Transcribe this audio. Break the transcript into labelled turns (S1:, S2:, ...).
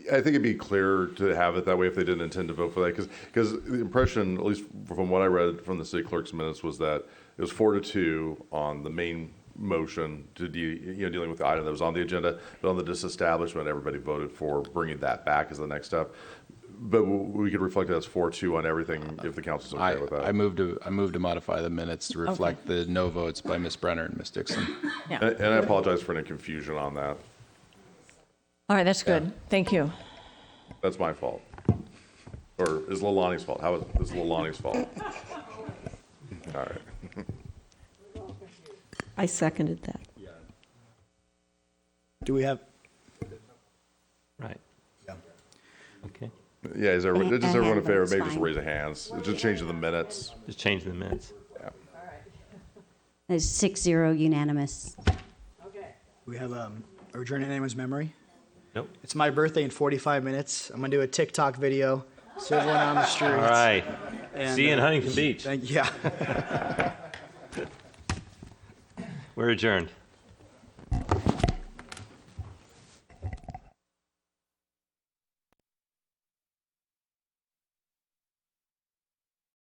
S1: I think it'd be clearer to have it that way if they didn't intend to vote for that, because, the impression, at least from what I read from the city clerk's minutes, was that it was four to two on the main motion to de, you know, dealing with the item that was on the agenda, but on the disestablishment, everybody voted for bringing that back as the next step. But w- we could reflect that as four two on everything if the council's
S2: I,
S1: okay with that.
S2: I moved to, I moved to modify the minutes to reflect the no votes by Ms. Brenner and Ms. Dixon.
S1: And
S3: Uh,
S1: and I apologize for any confusion on that.
S4: All right, that's good. Thank you.
S1: That's my fault. Or is Lalani's fault? How is, is Lalani's fault? All right.
S3: I seconded that.
S5: Do we have,
S6: Right. Okay,
S1: Yeah, is everyone,
S7: I
S1: just everyone in
S7: have
S1: favor,
S7: votes,
S1: maybe just
S7: fine.
S1: raise the hands. Just change the minutes.
S6: just change the minutes.
S7: It's six zero unanimous.
S5: we have, um, are we journeying anyone's memory?
S6: Nope.
S5: It's my birthday in 45 minutes. I'm going to do a TikTok video. So everyone on the street.
S6: All right.
S5: And,
S6: See you in
S5: uh,
S6: Huntington Beach.
S5: Thank, yeah.
S6: We're adjourned.